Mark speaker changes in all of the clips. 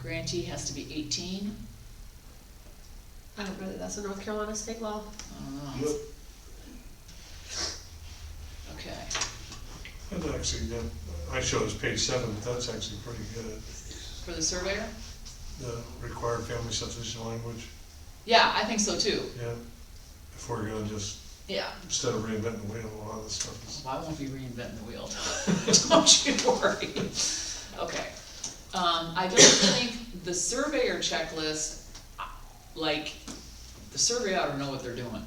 Speaker 1: grantee has to be eighteen,
Speaker 2: I don't Oh, really, that's a North Carolina state law.
Speaker 1: I don't know,
Speaker 3: Yep,
Speaker 1: okay.
Speaker 3: That's actually, good. I show as page seven, but that's actually pretty good.
Speaker 1: For the surveyor?
Speaker 3: The required family subdivision language,
Speaker 1: Yeah, I think so too,
Speaker 3: yeah. If we're gonna just,
Speaker 1: yeah.
Speaker 3: instead of reinventing the wheel, a lot of this stuff is.
Speaker 1: Well, I won't be reinventing the wheel, don't you worry. Okay, um, I don't think the surveyor checklist, like, the survey ought to know what they're doing.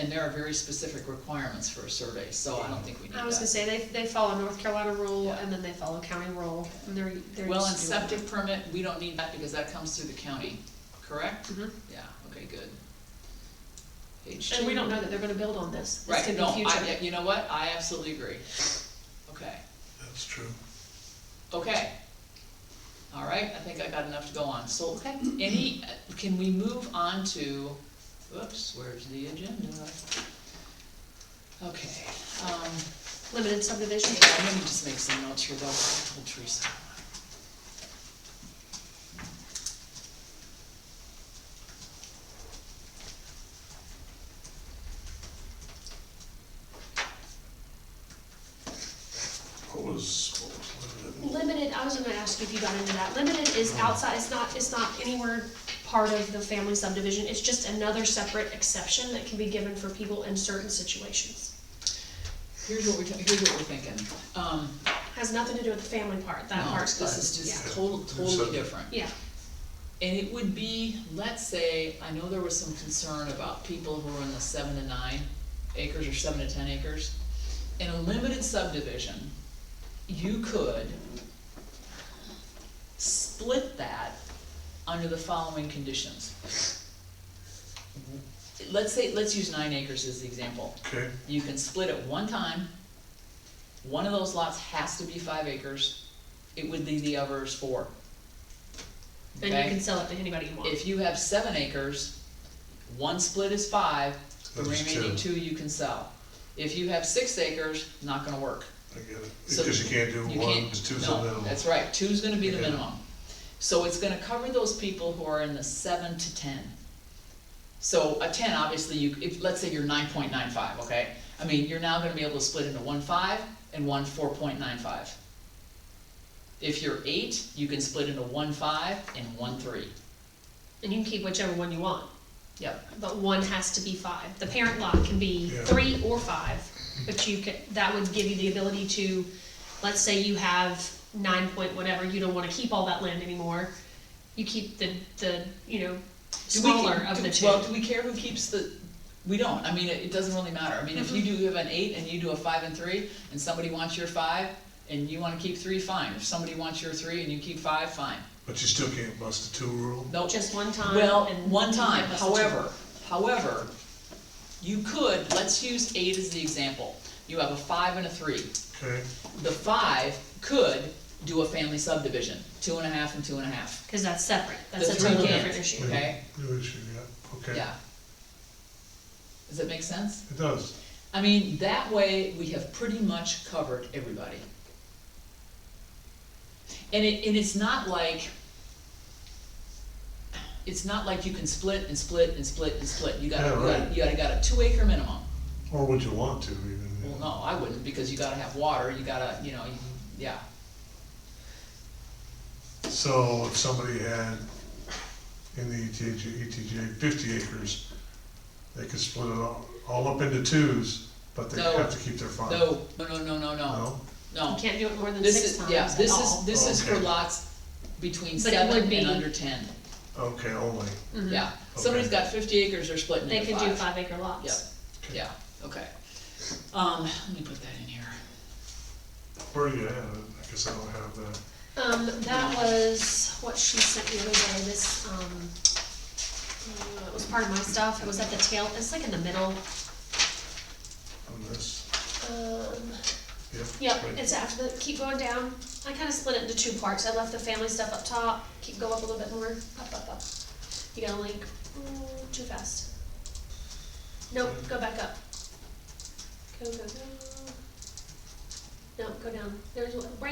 Speaker 1: And there are very specific requirements for a survey, so I don't think we need
Speaker 2: I was
Speaker 1: that.
Speaker 2: gonna say, they, they follow North Carolina rule,
Speaker 1: Yeah.
Speaker 2: and then they follow county rule, and they're, they're
Speaker 1: Well, and
Speaker 2: just doing it.
Speaker 1: septic permit, we don't need that because that comes through the county, correct?
Speaker 2: Mhm.
Speaker 1: Yeah, okay, good. Page
Speaker 2: And we
Speaker 1: two.
Speaker 2: don't know that they're gonna build on this, this
Speaker 1: Right,
Speaker 2: could
Speaker 1: no,
Speaker 2: be
Speaker 1: I,
Speaker 2: future.
Speaker 1: yeah, you know what, I absolutely agree. Okay,
Speaker 3: That's true.
Speaker 1: okay. All right, I think I got enough to go on, so, any, can we move on to, whoops, where's the agenda? Okay, um,
Speaker 2: Limited subdivision,
Speaker 1: yeah, let me just make some notes here, though, I told Teresa.
Speaker 3: What was, what was limited?
Speaker 2: limited, I was gonna ask you if you got into that, limited is
Speaker 1: Mm.
Speaker 2: outside, it's not, it's not anywhere part of the family subdivision, it's just another separate exception that can be given for people in certain situations.
Speaker 1: Here's what we're, here's what we're thinking, um,
Speaker 2: Has nothing to do with the family part, that
Speaker 1: no,
Speaker 2: part's
Speaker 1: this
Speaker 2: closed,
Speaker 1: is
Speaker 2: yeah.
Speaker 1: just total, totally different.
Speaker 2: Yeah,
Speaker 1: And it would be, let's say, I know there was some concern about people who are in the seven to nine acres or seven to ten acres. In a limited subdivision, you could split that under the following conditions. Let's say, let's use nine acres as the example.
Speaker 3: Okay,
Speaker 1: You can split it one time. One of those lots has to be five acres. It would leave the others four.
Speaker 2: and
Speaker 1: Okay?
Speaker 2: you can sell it to anybody you want.
Speaker 1: If you have seven acres, one split is five, the
Speaker 3: That is
Speaker 1: remaining
Speaker 3: two.
Speaker 1: two you can sell. If you have six acres, not gonna work.
Speaker 3: I get it.
Speaker 1: So
Speaker 3: Because you can't do
Speaker 1: You
Speaker 3: one,
Speaker 1: can't-
Speaker 3: because two's
Speaker 1: no,
Speaker 3: the minimum.
Speaker 1: That's right, two's gonna be the
Speaker 3: Yeah.
Speaker 1: minimum. So it's gonna cover those people who are in the seven to ten. So a ten, obviously, you, if, let's say you're nine point nine five, okay? I mean, you're now gonna be able to split into one five and one four point nine five. If you're eight, you can split into one five and one three.
Speaker 2: And you can keep whichever one you want.
Speaker 1: Yep.
Speaker 2: But one has to be five. The parent lot can be
Speaker 3: Yeah.
Speaker 2: three or five, but you could, that would give you the ability to, let's say you have nine point whatever, you don't wanna keep all that land anymore. You keep the, the, you know,
Speaker 1: Do we
Speaker 2: smaller
Speaker 1: ca-
Speaker 2: of
Speaker 1: do-
Speaker 2: the
Speaker 1: Well,
Speaker 2: two.
Speaker 1: do we care who keeps the, we don't, I mean, it, it doesn't really matter, I mean, if you
Speaker 2: Mm-hmm.
Speaker 1: do have an eight and you do a five and three, and somebody wants your five, and you wanna keep three, fine, if somebody wants your three and you keep five, fine,
Speaker 3: But you still can't bust the two rule.
Speaker 1: no,
Speaker 2: Just one time
Speaker 1: well,
Speaker 2: and
Speaker 1: one
Speaker 2: you
Speaker 1: time,
Speaker 2: can't bust the two.
Speaker 1: however, however, you could, let's use eight as the example, you have a five and a three,
Speaker 3: Okay,
Speaker 1: the five could do a family subdivision, two and a half and two and a half,
Speaker 2: Cause that's separate. That's
Speaker 1: The
Speaker 2: a
Speaker 1: three
Speaker 2: totally
Speaker 1: can't.
Speaker 2: different issue.
Speaker 3: Yeah.
Speaker 1: okay,
Speaker 3: new issue, yeah, okay.
Speaker 1: yeah. Does it make sense?
Speaker 3: It does.
Speaker 1: I mean, that way, we have pretty much covered everybody. And it, and it's not like, it's not like you can split and split and split and split, you gotta,
Speaker 3: Yeah,
Speaker 1: you gotta,
Speaker 3: right.
Speaker 1: you gotta, got a two acre minimum.
Speaker 3: Or would you want to even? you
Speaker 1: Well,
Speaker 3: know?
Speaker 1: no, I wouldn't, because you gotta have water, you gotta, you know, you- yeah,
Speaker 3: So if somebody had in the E ETJ, ETJ fifty acres, they could split it all, all up into twos, but they
Speaker 1: No.
Speaker 3: have to keep their farm.
Speaker 1: no, no, no, no, no, no,
Speaker 3: No?
Speaker 2: You
Speaker 1: no.
Speaker 2: can't do it more than
Speaker 1: This
Speaker 2: six
Speaker 1: is,
Speaker 2: times
Speaker 1: yeah,
Speaker 2: at
Speaker 1: this is,
Speaker 2: all.
Speaker 1: this is for
Speaker 3: Okay.
Speaker 1: lots between
Speaker 2: But it would
Speaker 1: seven
Speaker 2: be-
Speaker 1: and under ten,
Speaker 3: Okay, only.
Speaker 2: Mhm.
Speaker 1: yeah. Somebody's
Speaker 3: Okay.
Speaker 1: got fifty acres, they're splitting
Speaker 2: They
Speaker 1: into
Speaker 2: could do five acre lots.
Speaker 1: Yep. Yeah, okay. Um, let me put that in here.
Speaker 3: Where do you have it? I guess I don't have that.
Speaker 2: Um, that was what she sent the other day, this, um, uh, it was part of my stuff, it was at the tail, it's like in the middle,
Speaker 3: On this,
Speaker 2: um,
Speaker 3: yeah.
Speaker 2: yep,
Speaker 3: right.
Speaker 2: it's after the, keep going down. I kinda split it into two parts, I left the family stuff up top, keep, go up a little bit more, up, up, up. You got a link, mm, too fast. Nope, go back up. Go, go, go. No, go down, there's, one- right